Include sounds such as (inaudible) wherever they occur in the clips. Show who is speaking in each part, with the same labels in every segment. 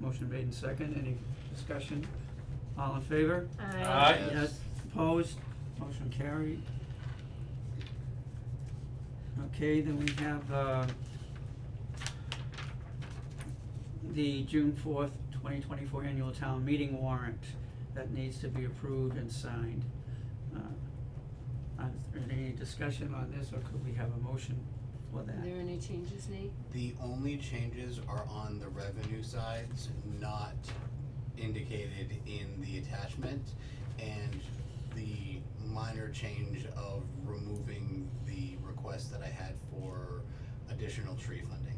Speaker 1: Motion made in second, any discussion? All in favor?
Speaker 2: Aye. Yes.
Speaker 1: Yes, opposed, motion carried. Okay, then we have, uh, the June fourth, twenty twenty-four annual town meeting warrant that needs to be approved and signed. Uh, Is there any discussion on this, or could we have a motion for
Speaker 2: Are
Speaker 1: that?
Speaker 2: there any changes, Nate?
Speaker 3: The only changes are on the revenue sides, not indicated in the attachment, and the minor change of removing the request that I had for additional tree funding.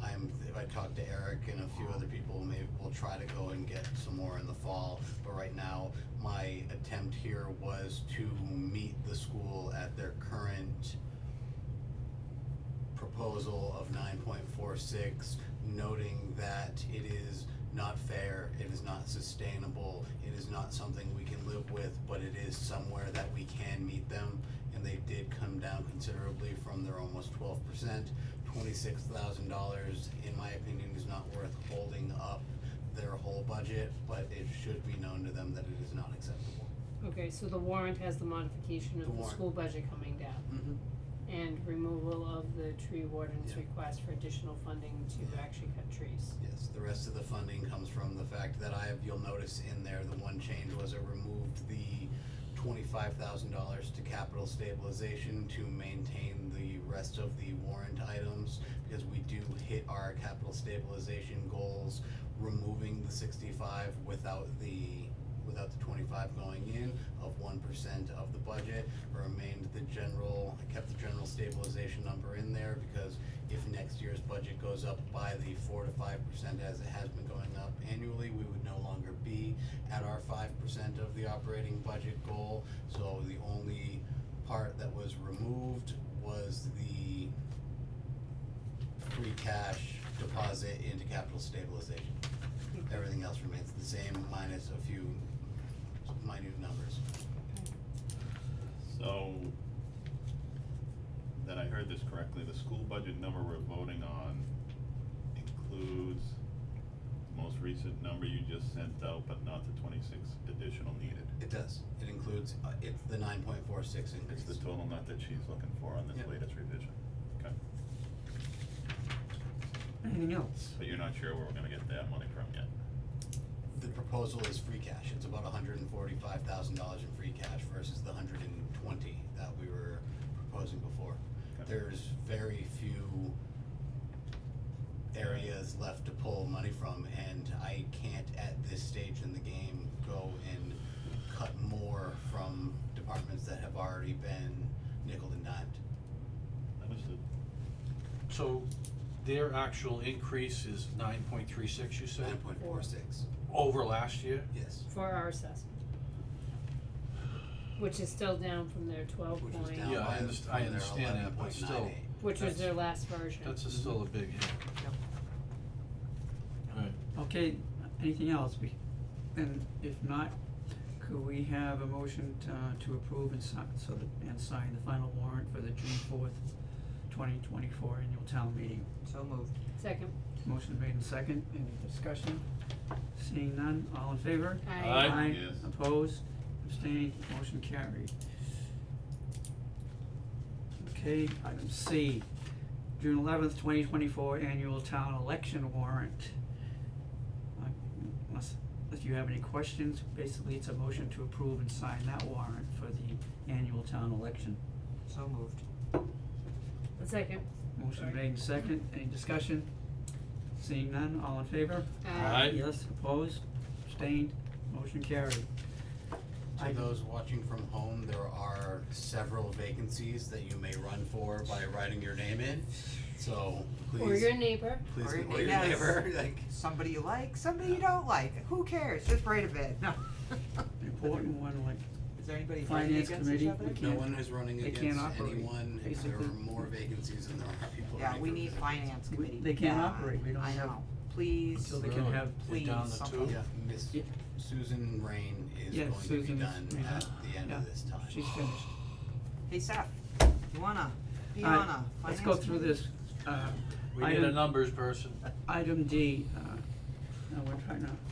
Speaker 3: I'm, if I talk to Eric and a few other people, maybe we'll try to go and get some more in the fall, but right now, my attempt here was to meet the school at their current proposal of nine point four six, noting that it is not fair, it is not sustainable, it is not something we can live with, but it is somewhere that we can meet them. And they did come down considerably from their almost twelve percent. Twenty-six thousand dollars, in my opinion, is not worth holding up their whole budget, but it should be known to them that it is not acceptable.
Speaker 2: Okay, so the warrant has the modification
Speaker 3: The
Speaker 2: of the
Speaker 3: warrant.
Speaker 2: school budget coming down and removal of the tree warden's
Speaker 3: Yeah.
Speaker 2: request for additional funding to
Speaker 3: Yeah.
Speaker 2: actually cut trees.
Speaker 3: Yes, the rest of the funding comes from the fact that I have, you'll notice in there, the one change was it removed the twenty-five thousand dollars to capital stabilization to maintain the rest of the warrant items, because we do hit our capital stabilization goals, removing the sixty-five without the, without the twenty-five going in of one percent of the budget, remained the general, I kept the general stabilization number in there, because if next year's budget goes up by the four to five percent as it has been going up annually, we would no longer be at our five percent of the operating budget goal. So the only part that was removed was the free cash deposit into capital stabilization. Everything else remains the same minus a few minute numbers.
Speaker 4: So, that I heard this correctly, the school budget number we're voting on includes the most recent number you just sent out, but not the twenty-six additional needed.
Speaker 3: It does, it includes, uh, it's the nine point four six increase.
Speaker 4: It's the total nut that she's looking for on this
Speaker 3: Yeah.
Speaker 4: latest revision, okay?
Speaker 1: Anything else?
Speaker 4: But you're not sure where we're gonna get that money from yet.
Speaker 3: The proposal is free cash, it's about hundred and forty-five thousand dollars in free cash versus the hundred and twenty that we were proposing before.
Speaker 4: Okay.
Speaker 3: There's very few areas left to pull money from, and I can't at this stage in the game go and cut more from departments that have already been nickel and dimed.
Speaker 4: Understood.
Speaker 5: So their actual increase is nine point three six, you
Speaker 3: Nine
Speaker 5: said,
Speaker 3: point four six,
Speaker 5: over last year?
Speaker 3: yes,
Speaker 2: For our assessment. Which is still down from their twelve
Speaker 3: which
Speaker 2: point,
Speaker 3: was down
Speaker 5: Yeah,
Speaker 3: by,
Speaker 5: I underst- I
Speaker 3: from their
Speaker 5: understand
Speaker 3: eleven
Speaker 5: that, but
Speaker 3: point nine eight.
Speaker 5: still.
Speaker 2: which was
Speaker 5: That's-
Speaker 2: their last version.
Speaker 5: That's a still a big hit. Alright,
Speaker 1: Okay, anything else? We- And if not, could we have a motion uh, to approve and sign, so that, and sign the final warrant for the June fourth, twenty twenty-four annual town meeting?
Speaker 6: So moved.
Speaker 2: Second,
Speaker 1: Motion made in second, any discussion? Seeing none, all in favor?
Speaker 2: Aye.
Speaker 5: Aye.
Speaker 4: Yes.
Speaker 1: opposed, abstained, motion carried. Okay, item C, June eleventh, twenty twenty-four annual town election warrant. Uh, Unless, if you have any questions, basically it's a motion to approve and sign that warrant for the annual town election.
Speaker 6: So moved.
Speaker 2: second.
Speaker 1: Motion
Speaker 2: Sorry.
Speaker 1: made and second, any discussion? Seeing none, all in favor?
Speaker 5: Aye.
Speaker 1: Yes, opposed, abstained, motion carried.
Speaker 3: To
Speaker 1: Item-
Speaker 3: those watching from home, there are several vacancies that you may run for by writing your name in. So
Speaker 2: Or
Speaker 3: please,
Speaker 2: your neighbor.
Speaker 3: please,
Speaker 6: Or your-
Speaker 3: or your
Speaker 6: yes.
Speaker 3: neighbor, like,
Speaker 6: Somebody you like, somebody you don't like, who cares, just write a bid, (laughs) no.
Speaker 1: Important one, like
Speaker 6: Is there anybody fighting
Speaker 1: Finance
Speaker 6: against each
Speaker 1: committee,
Speaker 6: other?
Speaker 1: we
Speaker 3: no
Speaker 1: can't-
Speaker 3: one is running
Speaker 1: They can't
Speaker 3: against
Speaker 1: operate,
Speaker 3: anyone. There are
Speaker 1: basically.
Speaker 3: more vacancies than there are people
Speaker 6: Yeah,
Speaker 3: running
Speaker 6: we
Speaker 3: for
Speaker 6: need
Speaker 3: positions.
Speaker 6: finance
Speaker 1: We-
Speaker 6: committee.
Speaker 1: they can't
Speaker 6: Yeah,
Speaker 1: operate. We don't
Speaker 6: I
Speaker 1: have-
Speaker 6: know, please,
Speaker 1: Until they can
Speaker 5: Really?
Speaker 1: have-
Speaker 5: They're
Speaker 6: please,
Speaker 5: down to
Speaker 6: something.
Speaker 5: two?
Speaker 3: Yeah, Miss
Speaker 1: Yeah.
Speaker 3: Susan Rain is
Speaker 1: Yeah,
Speaker 3: going to be
Speaker 1: Susan's-
Speaker 3: done
Speaker 1: yeah.
Speaker 3: at the end
Speaker 1: Yeah.
Speaker 3: of this time.
Speaker 1: she's finished.
Speaker 6: Hey Seth, you wanna be
Speaker 1: All right,
Speaker 6: on a finance committee?
Speaker 1: Let's go through this. Uh,
Speaker 5: we need a
Speaker 1: item,
Speaker 5: numbers person.
Speaker 1: item D, uh, No, we're trying to